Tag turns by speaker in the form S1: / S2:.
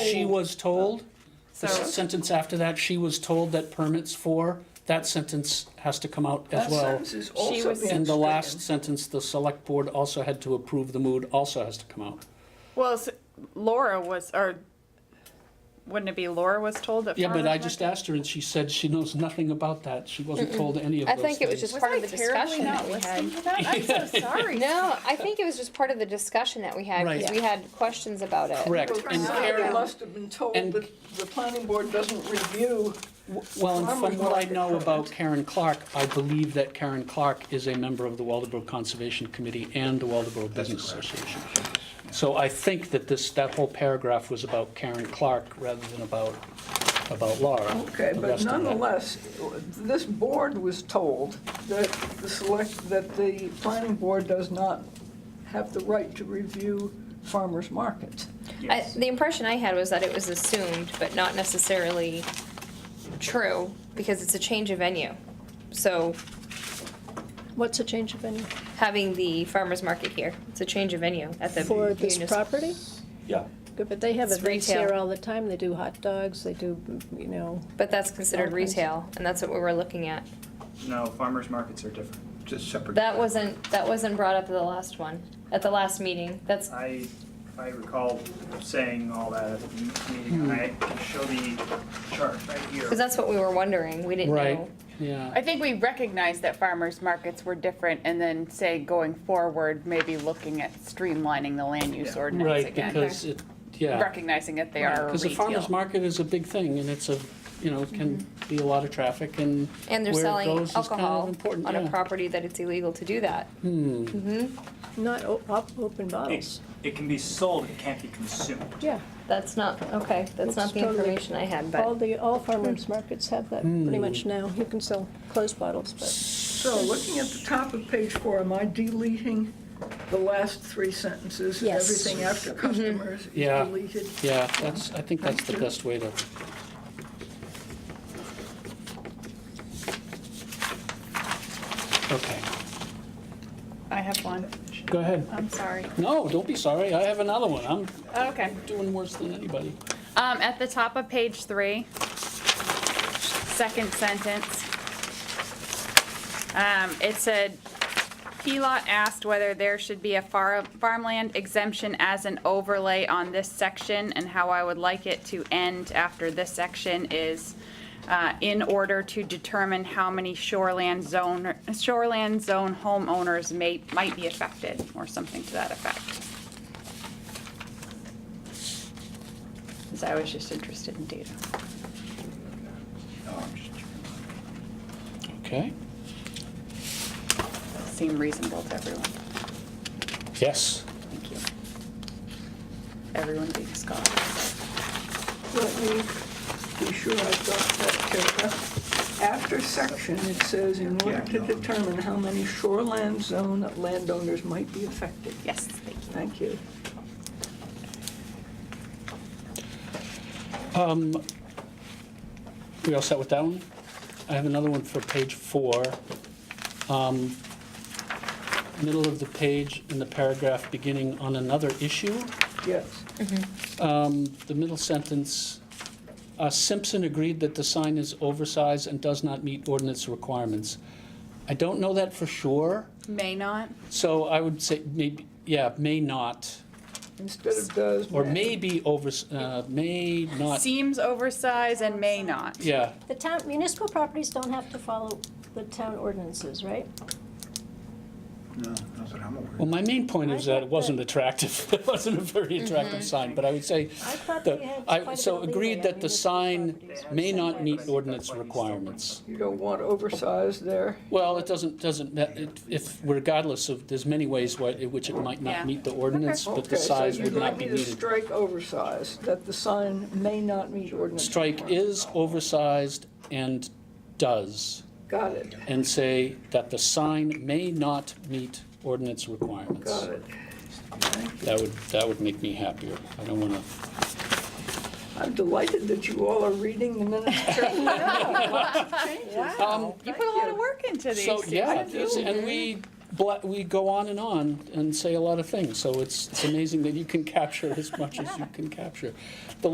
S1: she was told, the s-
S2: So,
S1: sentence after that, she was told that permits for, that sentence has to come out as
S3: That
S1: well.
S3: sentence is also
S2: was-
S3: being
S1: And the last
S3: stricken.
S1: sentence, the select board also had to approve the mood, also has to come out.
S2: well, s- Laura was, or wouldn't it be Laura was told that?
S1: Yeah, but
S2: farmers
S1: I just asked her and she said she knows nothing about that. She wasn't told any of
S4: I
S1: those
S4: think it was
S1: things.
S4: just
S2: market-
S4: part of the
S2: Was I terribly
S4: discussion that
S2: not
S4: we
S2: listening
S4: had.
S2: to that? I'm so sorry.
S4: No, I think it was just part of the discussion that we had,
S1: Right.
S4: because we had questions about it.
S1: Correct. And
S3: Somebody must have been told
S1: and-
S3: that the planning board doesn't review.
S1: Well, and
S3: farmers
S1: from what I
S3: market
S1: know
S3: permits.
S1: about Karen Clark, I believe that Karen Clark is a member of the Waldeboro Conservation Committee and the Waldeboro Business Association. So I think that this, that whole paragraph was about Karen Clark rather than about, about Laura.
S3: Okay,
S1: the
S3: but
S1: rest of that.
S3: nonetheless, this board was told that the select, that the planning board does not have the right to review farmers markets.
S4: I, the impression I had was that it was assumed, but not necessarily true, because it's a change of venue. So
S5: What's a change of venue
S4: having the farmer's market here, it's a change of venue at the.
S5: for this
S4: munis-
S5: property?
S1: Yeah.
S5: Good, But they have
S4: It's
S5: events
S4: retail.
S5: here all the time. They do hot dogs, they do, you know,
S4: But that's considered
S5: All kinds.
S4: retail, and that's what we were looking at.
S6: No, farmers markets are different.
S7: Just separate.
S4: That wasn't, that wasn't brought up at the last one, at the last meeting. That's,
S6: I, I recall saying all that at the m- meeting, and I can show the chart right here.
S4: because that's what we were wondering. We didn't
S1: Right,
S4: know.
S1: yeah.
S8: I think we recognized that farmers markets were different and then say going forward, maybe looking at streamlining the land use ordinance
S1: Right,
S8: again.
S1: because it, yeah.
S8: Recognizing that they are a
S1: Because the farmer's
S8: retail.
S1: market is a big thing, and it's a, you know, can be a lot of traffic, and
S4: And they're
S1: where it
S4: selling
S1: goes is kind of
S4: alcohol
S1: important,
S4: on
S1: yeah.
S4: a property that it's illegal to do that.
S5: not o- op- open
S6: It,
S5: bottles.
S6: it can be sold, it can't be consumed.
S5: Yeah.
S4: That's not, okay, that's not
S5: It's
S4: the
S5: totally-
S4: information I had, but
S5: All
S4: Hmm.
S5: the, all farmers markets have that pretty much now. You can sell closed bottles, but
S3: So looking at the top of page four, am I deleting the last three sentences?
S5: Yes.
S3: Everything after customers is
S1: Yeah.
S3: deleted?
S1: Yeah, that's, I think that's the
S3: Thank you.
S1: best way to, okay,
S8: I have one.
S1: go ahead.
S8: I'm sorry.
S1: No, don't be sorry, I have another one, I'm
S8: Oh, Okay.
S1: doing worse than anybody.
S8: Um, at the top of page three, second sentence. Um, it said, PLOT asked whether there should be a far, farmland exemption as an overlay on this section, and how I would like it to end after this section is, uh, in order to determine how many shoreland zone, shoreland zone homeowners may, might be affected, or something to that effect. Because I was just interested in data.
S7: No, I'm just checking.
S1: Okay,
S8: Seem reasonable to everyone.
S1: yes,
S8: Thank you. Everyone being Scott.
S3: Let me be sure I've got that paragraph. After section, it says, in order to determine how many shoreland zone landowners might be affected.
S8: Yes, thank you.
S3: Thank you.
S1: we all set with that one? I have another one for page four. Um, Middle of the page in the paragraph beginning on another issue.
S3: Yes.
S1: Um, the middle sentence, uh, Simpson agreed that the sign is oversized and does not meet ordinance requirements. I don't know that for sure,
S8: May not.
S1: so I would say maybe, yeah, may not,
S3: Instead of does.
S1: or may be over, uh, may not,
S8: Seems oversized and may not.
S1: yeah.
S5: the town, municipal properties don't have to follow the town ordinances, right?
S7: No, not that I'm aware of.
S1: Well, my main point is that it wasn't attractive, it wasn't a very attractive sign, but I would say,
S5: I thought
S1: the-
S5: they had quite a
S1: I,
S5: bit
S1: so
S5: of leeway
S1: agreed
S5: on
S1: that the
S5: municipal
S1: sign
S5: properties.
S1: may not meet
S6: But I think that's
S1: ordinance
S6: why you still
S1: requirements.
S3: You don't want oversized there.
S1: Well, it doesn't, doesn't, ma- it- if, regardless of, there's many ways why- in which it might
S8: Yeah.
S1: not meet the ordinance, but the
S3: Okay, so
S1: size
S3: you'd
S1: would
S3: like
S1: not be
S3: me to
S1: needed.
S3: Strike oversized, that the sign may not meet ordinance.
S1: Strike
S3: requirements.
S1: is oversized and does,
S3: Got it,
S1: and say that the sign may not meet ordinance requirements.
S3: got it.
S1: That would, that would make me happier. I don't wanna,
S3: I'm delighted that you all are reading the minutes carefully.
S1: um,
S8: You put a lot of work into these.
S1: so, yeah,
S8: Susan.
S1: it's- and we, bla- we go on and on and say a lot of things, so it's, it's amazing that you can capture as much as you can capture. The